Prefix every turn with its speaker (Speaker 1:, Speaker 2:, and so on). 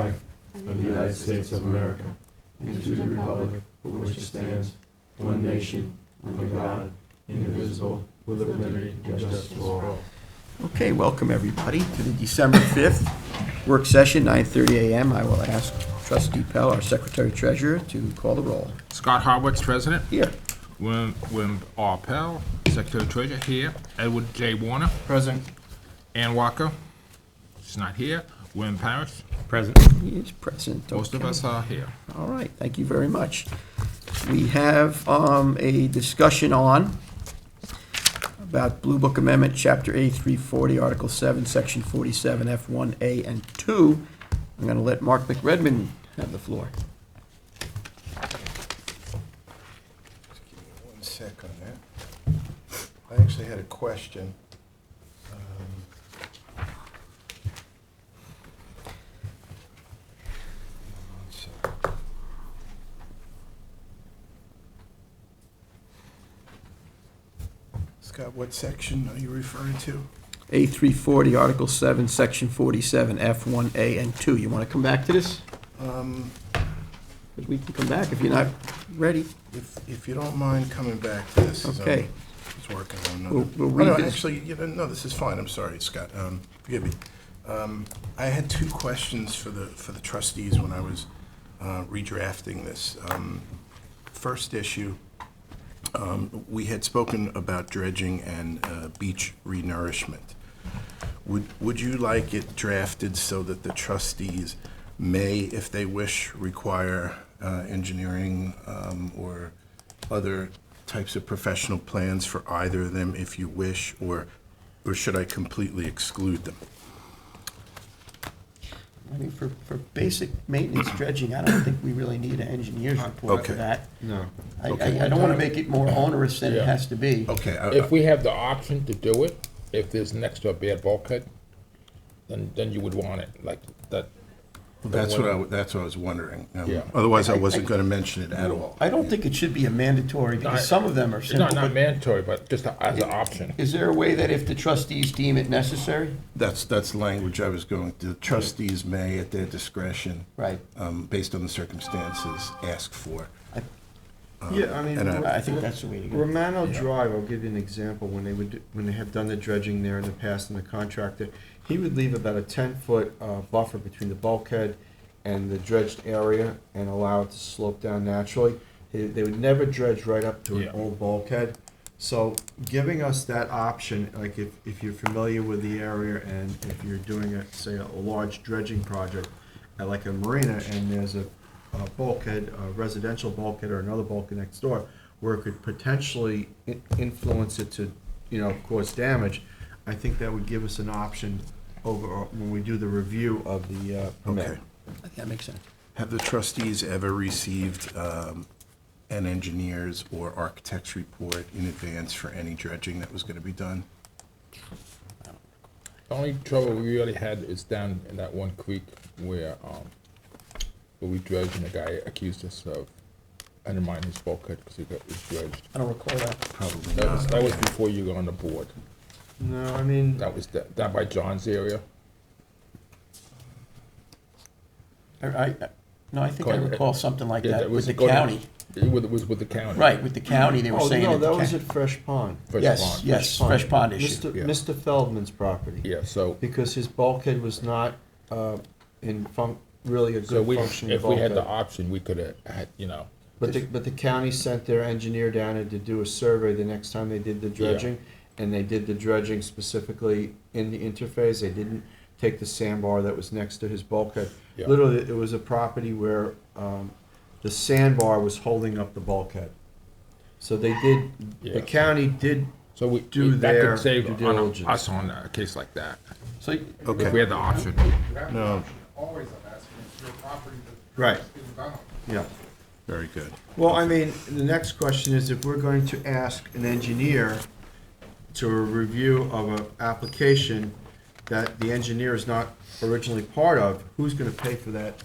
Speaker 1: of the United States of America and to the republic for which it stands, one nation, under God, indivisible, with liberty and justice for all.
Speaker 2: Okay, welcome everybody to the December 5th work session, 9:30 a.m. I will ask trustee Pell, our secretary treasurer, to call the roll.
Speaker 3: Scott Harwitz, President.
Speaker 2: Here.
Speaker 3: William, William R. Pell, Secretary Treasurer, here. Edward J. Warner. Present. Ann Walker, she's not here. William Parrish,
Speaker 2: He is present.
Speaker 3: most of us are here.
Speaker 2: All right, thank you very much. We have um, a discussion on about Blue Book Amendment, Chapter A, 340, Article 7, Section 47, F1A and 2. I'm going to let Mark McRedmond have the floor.
Speaker 4: Just give me one sec on that. I actually had a question. Um, one sec. Scott, what section are you referring to?
Speaker 2: A, 340, Article 7, Section 47, F1A and 2. You want to come back to this?
Speaker 4: Um,
Speaker 2: 'Cause we can come back if you're not ready.
Speaker 4: If, if you don't mind coming back to this. as I'm-
Speaker 2: Okay.
Speaker 4: It's working on
Speaker 2: We'll-
Speaker 4: another.
Speaker 2: we'll
Speaker 4: Oh, no,
Speaker 2: read this.
Speaker 4: Actually, you know, no, this is fine, I'm sorry, Scott, um, forgive me. Um, I had two questions for the, for the trustees when I was uh, redrafting this. Um, First issue, um, we had spoken about dredging and uh, beach renourishment. Would, would you like it drafted so that the trustees may, if they wish, require uh, engineering um, or other types of professional plans for either of them if you wish, or, or should I completely exclude them?
Speaker 2: I mean, for, for basic maintenance dredging, I don't think we really need an engineer's report for
Speaker 4: Okay.
Speaker 2: that.
Speaker 1: No.
Speaker 2: I,
Speaker 4: Okay.
Speaker 2: I, I don't want to make it more onerous than it
Speaker 3: Yeah.
Speaker 2: has to be.
Speaker 4: Okay, I-
Speaker 3: If we have the option to do it, if there's next to a bad bulkhead, then, then you would want it, like that.
Speaker 4: that's what I, that's what I was wondering. Um,
Speaker 3: Yeah.
Speaker 4: Otherwise, I wasn't going to mention it at all.
Speaker 2: I don't think it should be a mandatory, because some of them are
Speaker 3: It's not,
Speaker 2: simple,
Speaker 3: not
Speaker 2: but
Speaker 3: mandatory, but just a- as an option.
Speaker 2: is there a way that if the trustees deem it necessary?
Speaker 4: That's, that's the language I was going, the trustees may, at their discretion.
Speaker 2: Right.
Speaker 4: um, Based on the circumstances, ask for.
Speaker 1: Yeah, I mean.
Speaker 4: And I-
Speaker 2: I think that's the way to go.
Speaker 1: Romano Drive, I'll give you an example, when they would, do- when they have done the dredging there in the past and the contractor, he would leave about a ten-foot uh, buffer between the bulkhead and the dredged area and allow it to slope down naturally. They they would never dredge right up to an
Speaker 3: Yeah.
Speaker 1: old bulkhead. So giving us that option, like if, if you're familiar with the area and if you're doing, a say, a large dredging project at like a marina and there's a a bulkhead, a residential bulkhead or another bulkhead next door, where it could potentially i- influence it to, you know, cause damage, I think that would give us an option over, uh, when we do the review of the uh, permit.
Speaker 4: Okay.
Speaker 2: I think that makes sense.
Speaker 4: Have the trustees ever received um, an engineer's or architect's report in advance for any dredging that was going to be done?
Speaker 3: The only trouble we really had is down in that one creek where, um, where we dredged and the guy accused us of undermining his bulkhead because he got, was dredged.
Speaker 2: I don't recall that.
Speaker 4: Probably
Speaker 3: That
Speaker 2: Ah,
Speaker 3: was,
Speaker 4: not.
Speaker 3: that was before you got on the board.
Speaker 1: No, I mean,
Speaker 3: That was, that down by John's area.
Speaker 2: I, I, no, I think I
Speaker 3: Go ahead.
Speaker 2: recall something like
Speaker 3: Yeah,
Speaker 2: that with
Speaker 3: was
Speaker 2: the
Speaker 3: go down-
Speaker 2: county.
Speaker 3: It was, it was with the county.
Speaker 2: Right, with the county, they were
Speaker 1: oh,
Speaker 2: saying.
Speaker 1: no,
Speaker 2: that the
Speaker 1: that was
Speaker 2: ca-
Speaker 1: at Fresh Pond.
Speaker 3: Fresh
Speaker 2: Yes,
Speaker 3: pond.
Speaker 2: yes, fresh pond issue.
Speaker 1: Mr.
Speaker 3: yeah.
Speaker 1: Mr. Feldman's property.
Speaker 3: Yeah, so,
Speaker 1: Because his bulkhead was not uh, in func, really a
Speaker 3: so
Speaker 1: good
Speaker 3: we,
Speaker 1: functioning
Speaker 3: if we had the
Speaker 1: bulkhead.
Speaker 3: option, we could have, had, you know,
Speaker 1: But the, but the county sent their engineer down and to do a survey the next time they did the dredging. And they did the dredging specifically in the interface. They didn't take the sandbar that was next to his bulkhead.
Speaker 3: Yeah.
Speaker 1: Literally, it was a property where um, the sandbar was holding up the bulkhead. So they did,
Speaker 3: Yeah.
Speaker 1: the county did,
Speaker 3: so we,
Speaker 1: Do
Speaker 3: that
Speaker 1: their
Speaker 3: could save
Speaker 1: due
Speaker 3: on
Speaker 1: diligence.
Speaker 3: us on a case like that.
Speaker 2: So,
Speaker 3: If we
Speaker 4: Okay,
Speaker 3: had the option.
Speaker 5: You have the
Speaker 4: No.
Speaker 5: option always of asking if your property that.
Speaker 1: Right.
Speaker 5: is being done on.
Speaker 1: yeah.
Speaker 4: very good.
Speaker 1: Well, I mean, the next question is if we're going to ask an engineer to a review of an application that the engineer is not originally part of, who's gonna pay for that